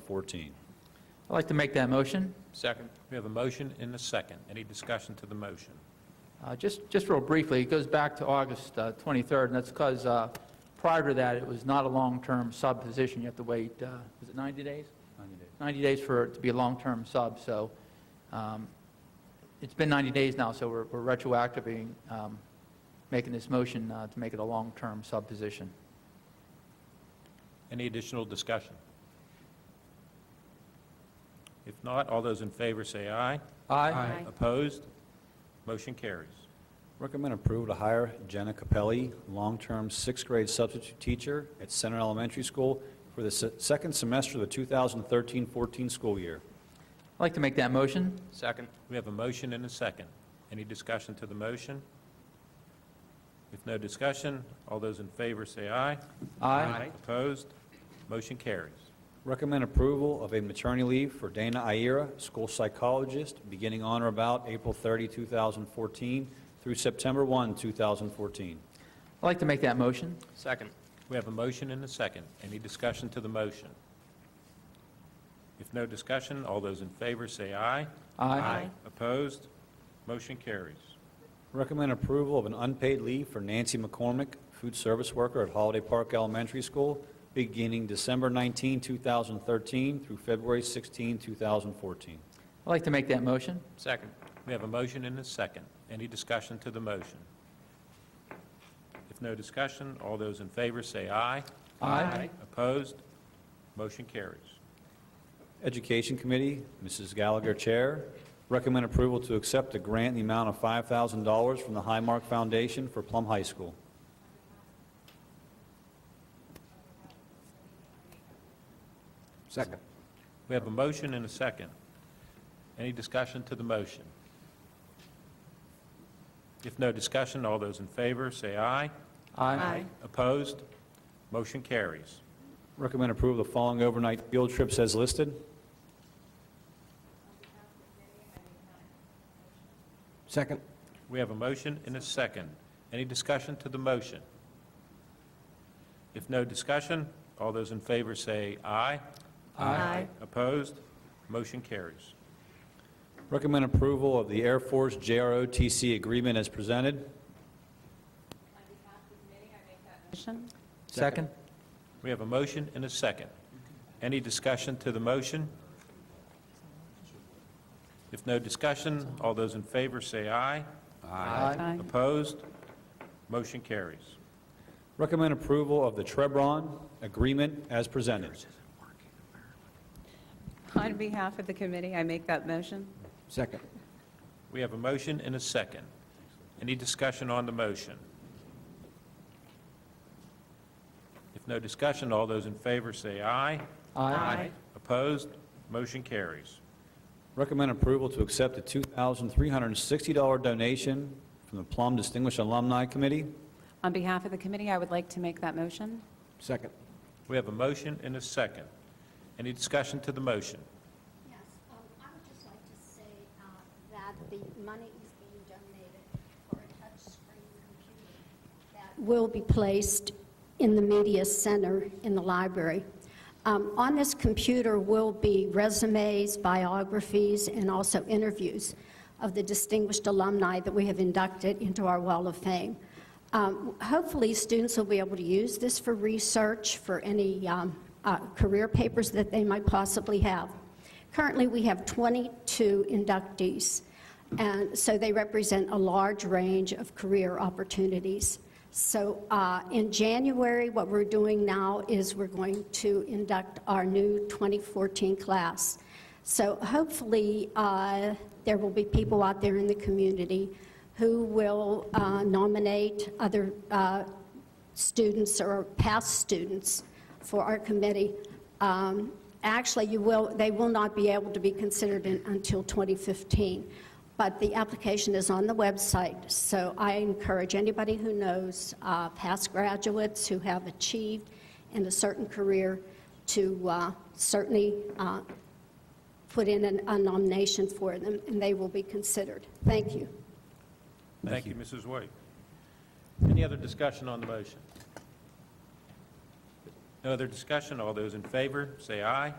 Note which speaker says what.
Speaker 1: 2014.
Speaker 2: I'd like to make that motion.
Speaker 3: Second. We have a motion and a second. Any discussion to the motion?
Speaker 2: Uh, Just, just real briefly, it goes back to August uh, 23rd, and that's because prior to that, it was not a long-term sub position. You have to wait, uh, is it 90 days? 90 days for, it to be a long-term sub, so um, it's been 90 days now, so we're we're retroactively um, making this motion uh, to make it a long-term sub position.
Speaker 3: Any additional discussion? If not, all those in favor say aye.
Speaker 2: Aye.
Speaker 3: Opposed? Motion carries.
Speaker 1: Recommend approval to hire Jenna Capelli, long-term sixth-grade substitute teacher at Center Elementary School for the se- second semester of the 2013-14 school year.
Speaker 2: I'd like to make that motion.
Speaker 4: Second.
Speaker 3: We have a motion and a second. Any discussion to the motion? If no discussion, all those in favor say aye.
Speaker 2: Aye.
Speaker 3: Opposed? Motion carries.
Speaker 1: Recommend approval of a maternity leave for Dana Ayera, school psychologist, beginning on or about April 30, 2014 through September 1, 2014.
Speaker 2: I'd like to make that motion.
Speaker 4: Second.
Speaker 3: We have a motion and a second. Any discussion to the motion? If no discussion, all those in favor say aye. Opposed? Motion carries.
Speaker 1: Recommend approval of an unpaid leave for Nancy McCormick, food service worker at Holiday Park Elementary School, beginning December 19, 2013 through February 16, 2014.
Speaker 2: I'd like to make that motion.
Speaker 4: Second.
Speaker 3: We have a motion and a second. Any discussion to the motion? If no discussion, all those in favor say aye.
Speaker 2: Aye.
Speaker 3: Opposed? Motion carries.
Speaker 1: Education Committee, Mrs. Gallagher, Chair. Recommend approval to accept a grant in the amount of $5,000 from the Highmark Foundation for Plum High School.
Speaker 4: Second.
Speaker 3: We have a motion and a second. Any discussion to the motion? If no discussion, all those in favor say aye.
Speaker 2: Aye.
Speaker 3: Opposed? Motion carries.
Speaker 1: Recommend approval of the following overnight field trips as listed.
Speaker 4: Second.
Speaker 3: We have a motion and a second. Any discussion to the motion? If no discussion, all those in favor say aye.
Speaker 2: Aye.
Speaker 3: Opposed? Motion carries.
Speaker 1: Recommend approval of the Air Force JROTC agreement as presented.
Speaker 5: Motion?
Speaker 2: Second?
Speaker 3: We have a motion and a second. Any discussion to the motion? If no discussion, all those in favor say aye.
Speaker 2: Aye.
Speaker 3: Opposed? Motion carries.
Speaker 1: Recommend approval of the Trebron Agreement as presented.
Speaker 5: On behalf of the committee, I make that motion.
Speaker 4: Second.
Speaker 3: We have a motion and a second. Any discussion on the motion? If no discussion, all those in favor say aye. Opposed? Motion carries.
Speaker 1: Recommend approval to accept a $2,360 donation from the Plum Distinguished Alumni Committee.
Speaker 5: On behalf of the committee, I would like to make that motion.
Speaker 4: Second.
Speaker 3: We have a motion and a second. Any discussion to the motion?
Speaker 6: Yes, um, I would just like to say uh, that the money is being donated for a touchscreen computer that will be placed in the media center in the library. Um, On this computer will be resumes, biographies, and also interviews of the distinguished alumni that we have inducted into our Wall of Fame. Um, Hopefully, students will be able to use this for research, for any um, uh, career papers that they might possibly have. Currently, we have 22 inductees, and so they represent a large range of career opportunities. So uh, in January, what we're doing now is we're going to induct our new 2014 class. So hopefully, uh, there will be people out there in the community who will uh, nominate other uh, students or past students for our committee. Um, Actually, you will, they will not be able to be considered in- until 2015, but the application is on the website, so I encourage anybody who knows uh, past graduates who have achieved in a certain career to uh, certainly uh, put in an- a nomination for them, and they will be considered. Thank you.
Speaker 3: Thank you, Mrs. White. Any other discussion on the motion? No other discussion, all those in favor, say aye.